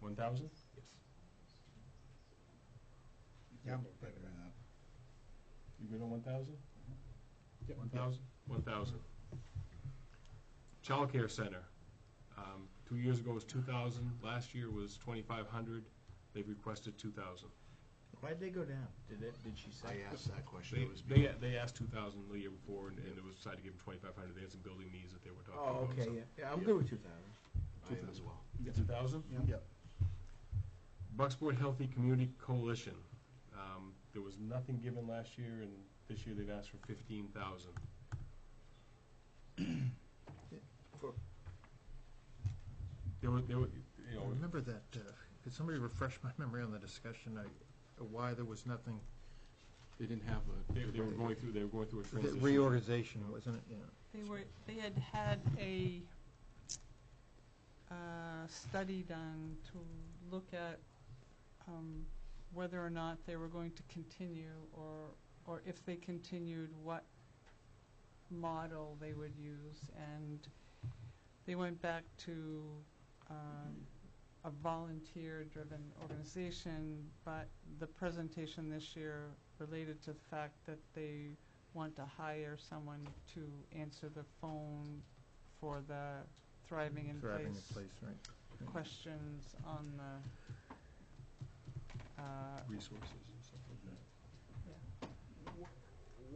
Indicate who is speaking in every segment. Speaker 1: one thousand?
Speaker 2: Yes.
Speaker 3: Yeah, I'm okay with that.
Speaker 1: You good on one thousand?
Speaker 2: Yep.
Speaker 1: One thousand? One thousand. Childcare center, um, two years ago was two thousand, last year was twenty-five hundred, they've requested two thousand.
Speaker 4: Why'd they go down? Did it, did she say?
Speaker 3: I asked that question.
Speaker 1: They,
Speaker 3: It was
Speaker 1: they, they asked two thousand the year before, and, and it was decided to give them twenty-five hundred, they had some building needs that they were talking about.
Speaker 4: Oh, okay, yeah, yeah, I'm good with two thousand.
Speaker 3: I am as well.
Speaker 1: Two thousand?
Speaker 3: Yep.
Speaker 1: Bucksport Healthy Community Coalition, um, there was nothing given last year, and this year they've asked for fifteen thousand.
Speaker 4: For-
Speaker 1: There were, there were, you know,
Speaker 5: Remember that, uh, could somebody refresh my memory on the discussion, uh, why there was nothing,
Speaker 2: They didn't have a,
Speaker 1: they, they were going through, they were going through a
Speaker 5: the
Speaker 1: transition.
Speaker 5: reorganization, wasn't it, yeah?
Speaker 6: They were, they had had a uh, study done to look at um, whether or not they were going to continue, or, or if they continued, what model they would use, and they went back to um, a volunteer-driven organization, but the presentation this year related to the fact that they want to hire someone to answer the phone for the thriving in
Speaker 5: Thriving in
Speaker 6: place
Speaker 5: place, right.
Speaker 6: questions on the, uh,
Speaker 1: Resources and stuff like that.
Speaker 4: Wh-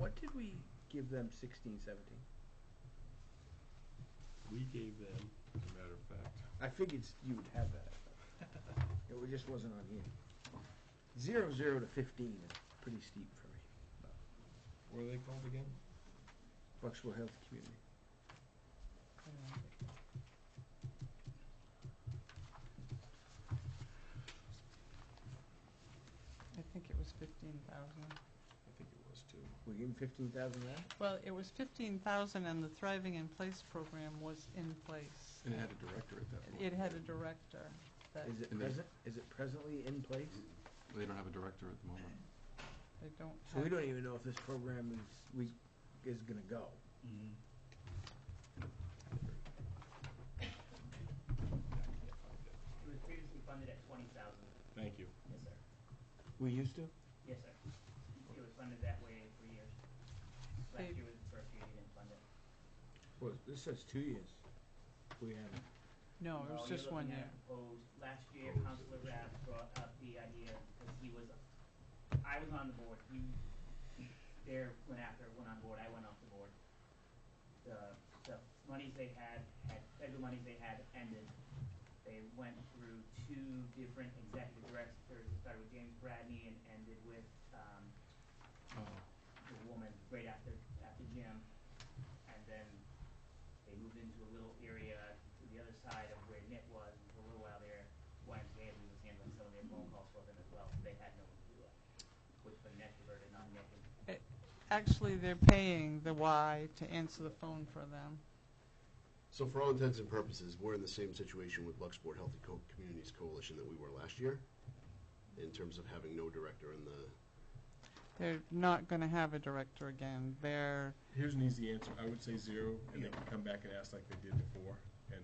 Speaker 4: What did we give them sixteen, seventeen?
Speaker 1: We gave them, as a matter of fact,
Speaker 4: I figured you would have that. It wa- just wasn't on here. Zero, zero to fifteen is pretty steep for me.
Speaker 1: what are they called again?
Speaker 4: Bucksville Health Community.
Speaker 6: I don't know. I think it was fifteen thousand.
Speaker 1: I think it was two.
Speaker 4: We give them fifteen thousand now?
Speaker 6: Well, it was fifteen thousand and the Thriving in Place program was in place.
Speaker 2: and it had a director at that point.
Speaker 6: It had a director that
Speaker 4: Is it
Speaker 2: And they-
Speaker 4: present, is it presently in place?
Speaker 2: They don't have a director at the moment.
Speaker 6: they don't
Speaker 4: So
Speaker 6: have.
Speaker 4: we don't even know if this program is, we, is gonna go.
Speaker 7: It was previously funded at twenty thousand.
Speaker 1: Thank you.
Speaker 7: Yes, sir.
Speaker 4: We used to?
Speaker 7: Yes, sir. It was funded that way for years. Last year was the first year you didn't fund it.
Speaker 4: Well, this says two years. We haven't.
Speaker 6: No, it
Speaker 7: Well,
Speaker 6: was
Speaker 7: you're
Speaker 6: just one
Speaker 7: looking at
Speaker 6: year.
Speaker 7: proposed- last year, Counselor Rath brought up the idea, because he was, I was on the board, he, there, went after, went on board, I went off the board. The, the monies they had, had, federal monies they had ended. They went through two different executive directors, It started with James Bradney and ended with, um,
Speaker 6: Oh.
Speaker 7: the woman right after, after Jim. And then they moved into a little area to the other side of where Nick was, and for a little while there, YMCA was handling some of their phone calls for them as well, so they had no one to do it. Which put Nick diverted on Nick, and
Speaker 6: Actually, they're paying the Y to answer the phone for them.
Speaker 8: So for all intents and purposes, we're in the same situation with Bucksport Healthy Co- Communities Coalition that we were last year, in terms of having no director in the,
Speaker 6: They're not gonna have a director again. They're,
Speaker 1: Here's an easy answer. I would say zero, and they can come back and ask like they did before. And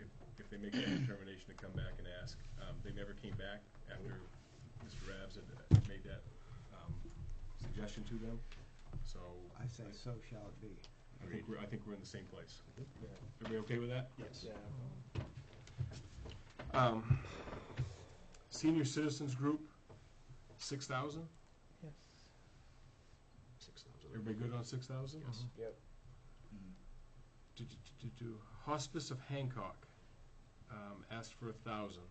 Speaker 1: if, if they make that determination to come back and ask, um, they never came back after Mr. Rabs had made that, um, suggestion to them. So
Speaker 3: I say so shall it be.
Speaker 1: I think we're, I think we're in the same place. Everybody okay with that?
Speaker 8: yes.
Speaker 1: Um, senior citizens group, six thousand?
Speaker 6: yes.
Speaker 8: Six thousand.
Speaker 1: Everybody good on six thousand? Uh-huh. Mm-hmm.
Speaker 5: Yes.
Speaker 4: Yep.
Speaker 1: Do, do, do, do, do. Hospice of Hancock, um, asked for a thousand.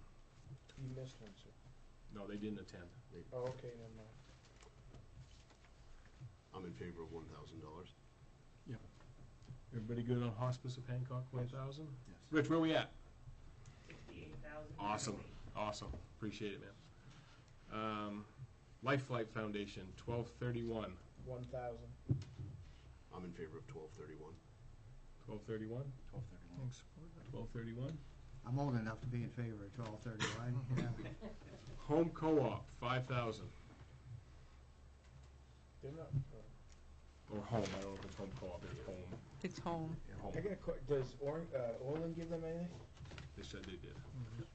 Speaker 4: You missed one, sir.
Speaker 1: No, they didn't attend.
Speaker 4: Oh, okay, never mind.
Speaker 8: I'm in favor of one thousand dollars.
Speaker 1: Everybody good on Hospice of Hancock, one thousand?
Speaker 3: Yes.
Speaker 1: Rich, where we at?
Speaker 7: sixty-eight thousand.
Speaker 1: Awesome, awesome, appreciate it, man. Um, Life Flight Foundation, twelve thirty-one,
Speaker 4: One thousand.
Speaker 8: I'm in favor of twelve thirty-one.
Speaker 1: twelve thirty-one,
Speaker 3: Twelve thirty-one.
Speaker 5: Thanks.
Speaker 1: twelve thirty-one.
Speaker 3: I'm old enough to be in favor of twelve thirty-one, yeah.
Speaker 1: Home Co-op, five thousand,
Speaker 4: They're not,
Speaker 1: or home, I don't know if it's home co-op, it's home,
Speaker 6: It's home.
Speaker 1: home,
Speaker 4: I got a que- does Orn, uh, Orland give them anything?
Speaker 1: they said they did.
Speaker 5: Mhm.